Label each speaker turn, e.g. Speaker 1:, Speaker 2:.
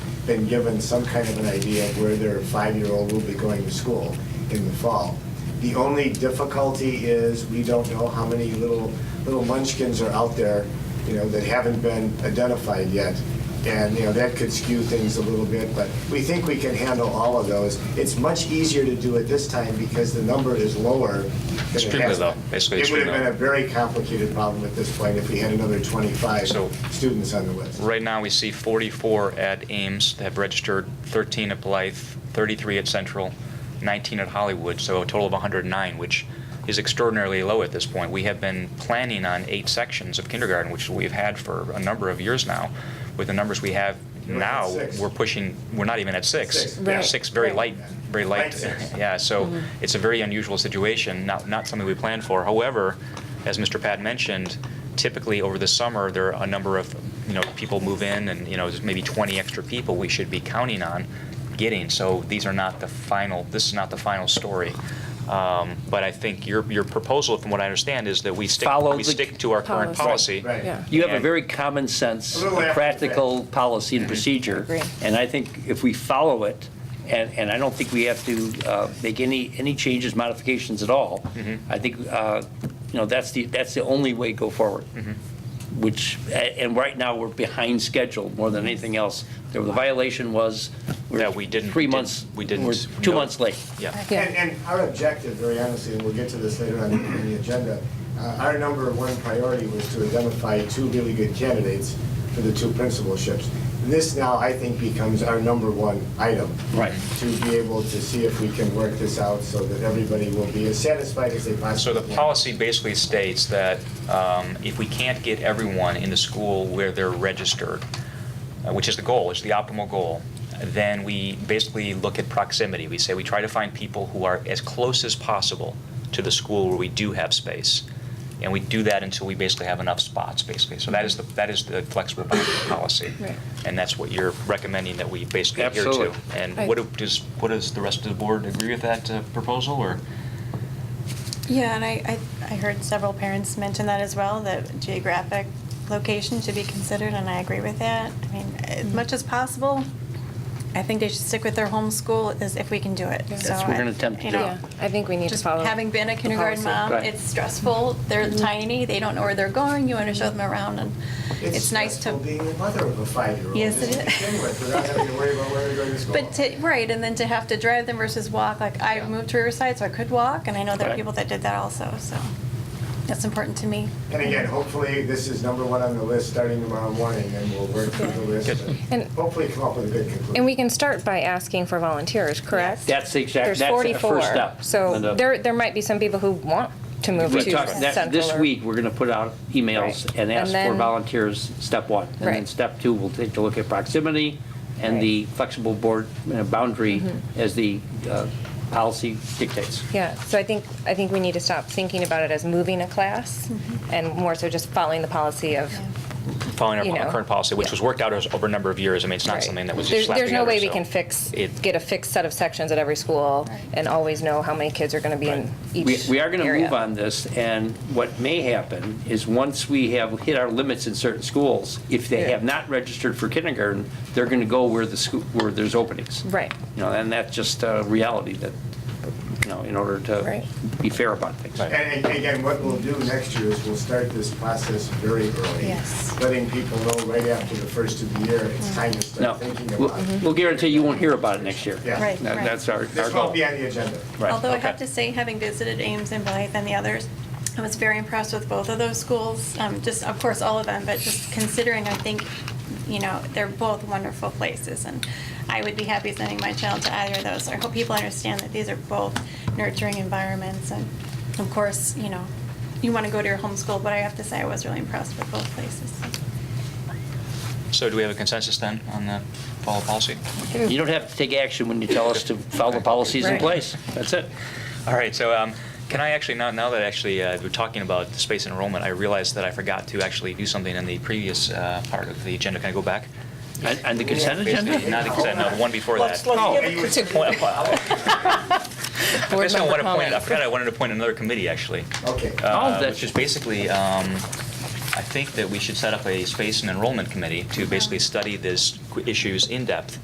Speaker 1: been given some kind of an idea of where their five-year-old will be going to school in the fall. The only difficulty is we don't know how many little, little munchkins are out there, you know, that haven't been identified yet. And, you know, that could skew things a little bit, but we think we can handle all of those. It's much easier to do it this time because the number is lower than it
Speaker 2: Extremely
Speaker 1: has
Speaker 2: low,
Speaker 1: been.
Speaker 2: basically
Speaker 1: It would have
Speaker 2: extremely
Speaker 1: been
Speaker 2: low.
Speaker 1: a very complicated problem at this point if we had another 25
Speaker 2: So-
Speaker 1: students on the list.
Speaker 2: Right now, we see 44 at Ames that have registered, 13 at Blythe, 33 at Central, 19 at Hollywood, so a total of 109, which is extraordinarily low at this point. We have been planning on eight sections of kindergarten, which we've had for a number of years now. With the numbers we have
Speaker 1: You're at
Speaker 2: now,
Speaker 1: six.
Speaker 2: we're pushing, we're not even at six.
Speaker 1: Six.
Speaker 2: We're
Speaker 3: Right.
Speaker 2: Six, very
Speaker 3: Right.
Speaker 2: light, very
Speaker 1: Light
Speaker 2: light.
Speaker 1: six.
Speaker 2: Yeah, so it's a very unusual situation, not, not something we planned for. However, as Mr. Pat mentioned, typically over the summer, there are a number of, you know, people move in and, you know, there's maybe 20 extra people we should be counting on getting. So these are not the final, this is not the final story. Um, But I think your, your proposal, from what I understand, is that we stick,
Speaker 4: Follow
Speaker 2: we
Speaker 4: the
Speaker 2: stick to our current policy.
Speaker 4: policy.
Speaker 1: Right.
Speaker 3: Yeah.
Speaker 4: You have a
Speaker 2: And- Mm-hmm.
Speaker 4: very common sense,
Speaker 1: A little after the
Speaker 4: practical policy and procedure.
Speaker 3: Agree.
Speaker 4: And I think if we follow it, and, and I don't think we have to uh, make any, any changes, modifications at all.
Speaker 2: Mm-hmm.
Speaker 4: I think, uh, you know, that's the, that's the only way to go forward.
Speaker 2: Mm-hmm.
Speaker 4: Which, a- and right now, we're behind schedule more than anything else. The violation was. we're
Speaker 2: That we didn't-
Speaker 4: Three
Speaker 2: did-
Speaker 4: months.
Speaker 2: we didn't
Speaker 4: we're Two
Speaker 2: know.
Speaker 4: months late.
Speaker 2: Yeah.
Speaker 3: Yeah.
Speaker 1: And, and our objective, very honestly, and we'll get to this later on in the agenda, uh, our number one priority was to identify two really good candidates for the two principalships. This now, I think, becomes our number one item.
Speaker 4: Right.
Speaker 1: To be able to see if we can work this out so that everybody will be as satisfied as they
Speaker 2: So
Speaker 1: possibly
Speaker 2: the
Speaker 1: can.
Speaker 2: policy basically states that um, if we can't get everyone in the school where they're registered, uh, which is the goal, it's the optimal goal, then we basically look at proximity. We say we try to find people who are as close as possible to the school where we do have space. And we do that until we basically have enough spots, basically. So that is the, that is the flexible boundary policy.
Speaker 3: Right.
Speaker 2: And that's what you're recommending that we basically adhere to.
Speaker 4: Absolutely.
Speaker 2: And what do- does, what does the rest of the board agree with that uh, proposal, or?
Speaker 5: Yeah, and I, I, I heard several parents mention that as well, that geographic location should be considered, and I agree with that. I mean, as
Speaker 3: Mm-hmm.
Speaker 5: much as possible, I think they should stick with their home school as if we can do it.
Speaker 3: That's
Speaker 5: So
Speaker 4: what we're
Speaker 5: I-
Speaker 4: gonna attempt to
Speaker 5: you
Speaker 4: do.
Speaker 5: know,
Speaker 4: Yeah,
Speaker 3: I think we need to
Speaker 5: Just
Speaker 3: follow.
Speaker 5: having been a
Speaker 3: the
Speaker 5: kindergarten
Speaker 3: policy. Mm-hmm.
Speaker 5: mom,
Speaker 4: Right.
Speaker 5: it's stressful. They're tiny. They don't know where they're going. You want to show them around, and it's nice to.
Speaker 1: stressful being the mother of a five-year-old.
Speaker 5: Yes,
Speaker 1: just
Speaker 5: it
Speaker 1: to
Speaker 5: is.
Speaker 1: begin with, Without having to worry about where they're going to school.
Speaker 5: But to, right, and then to have to drive them versus walk, like I moved to Riverside, so I could walk, and I know there
Speaker 4: Right.
Speaker 5: are people that did that also, so that's important to me.
Speaker 1: And again, hopefully, this is number one on the list starting tomorrow morning, and we'll work through the list and
Speaker 3: And-
Speaker 1: hopefully come up with a good conclusion.
Speaker 3: And we can start by asking for volunteers, correct?
Speaker 4: That's the exact,
Speaker 3: There's
Speaker 4: that's the
Speaker 3: 44.
Speaker 4: first step.
Speaker 3: So
Speaker 4: Linda.
Speaker 3: there, there might be some people who want to move
Speaker 4: We
Speaker 3: to
Speaker 4: talked- that- This
Speaker 3: Central or-
Speaker 4: week, we're going to put out emails
Speaker 3: Right.
Speaker 4: and ask
Speaker 3: And
Speaker 4: for
Speaker 3: then-
Speaker 4: volunteers, step one. And then
Speaker 3: Right.
Speaker 4: step two, we'll take a look at proximity and
Speaker 3: Right. Mm-hmm.
Speaker 4: the flexible board uh, boundary as the uh, policy dictates.
Speaker 3: Yeah, so I think, I think we need to stop thinking about it as moving a class
Speaker 4: Mm-hmm.
Speaker 3: and more so just following the policy of,
Speaker 2: following
Speaker 3: you
Speaker 2: our-
Speaker 3: know.
Speaker 2: our current policy, which was worked out as- over a number of years. I mean, it's not
Speaker 3: Right.
Speaker 2: something that was just
Speaker 3: There's-
Speaker 2: slapped
Speaker 3: There's no
Speaker 2: together,
Speaker 3: way we
Speaker 2: so
Speaker 3: can fix,
Speaker 2: it-
Speaker 3: get a fixed set of sections at every school
Speaker 5: Right.
Speaker 3: and always know how many kids are going to be in each
Speaker 4: We
Speaker 3: area.
Speaker 4: we are going to move on this, and what may happen is once we have hit our limits in certain schools, if they
Speaker 3: Yeah.
Speaker 4: have not registered for kindergarten, they're going to go where the, schoo- where there's openings.
Speaker 3: Right.
Speaker 4: You know, and that's just a reality that, you know, in order to
Speaker 3: Right.
Speaker 4: be fair about things.
Speaker 2: Right.
Speaker 1: And and again, what we'll do next year is we'll start this process very early.
Speaker 5: Yes.
Speaker 1: Letting people know right after the first of the year, it's time to
Speaker 4: No,
Speaker 1: start thinking
Speaker 4: we'll-
Speaker 1: about it.
Speaker 4: we'll guarantee you won't hear about it next year.
Speaker 1: Yeah.
Speaker 5: Right,
Speaker 4: That-
Speaker 5: right.
Speaker 4: That's our, our
Speaker 1: This won't
Speaker 4: goal.
Speaker 1: be on the agenda.
Speaker 4: Right,
Speaker 5: Although I
Speaker 4: okay.
Speaker 5: have to say, having visited Ames and Blythe and the others, I was very impressed with both of those schools. Um, just, of course, all of them, but just considering, I think, you know, they're both wonderful places, and I would be happy sending my child to either of those. I hope people understand that these are both nurturing environments, and of course, you know, you want to go to your home school, but I have to say, I was really impressed with both places.
Speaker 2: So do we have a consensus then on the follow policy?
Speaker 4: You don't have to take action when you tell us to follow the policies in
Speaker 3: Right.
Speaker 4: place. That's it.
Speaker 2: All right, so um, can I actually, now now that actually uh, we're talking about the space enrollment, I realized that I forgot to actually do something in the previous uh, part of the agenda. Can I go back?
Speaker 4: And and the consent
Speaker 2: Basically,
Speaker 4: agenda?
Speaker 2: Not the consent, no, the one before that.
Speaker 4: Oh.
Speaker 1: And you-
Speaker 2: Point- I
Speaker 3: Board
Speaker 2: guess I wanted
Speaker 3: member
Speaker 2: to point, I
Speaker 3: comments.
Speaker 2: forgot I wanted to point another committee, actually.
Speaker 1: Okay.
Speaker 4: Oh,
Speaker 2: uh,
Speaker 4: that's-
Speaker 2: which is basically, um, I think that we should set up a space and enrollment committee to basically study these qu- issues in depth.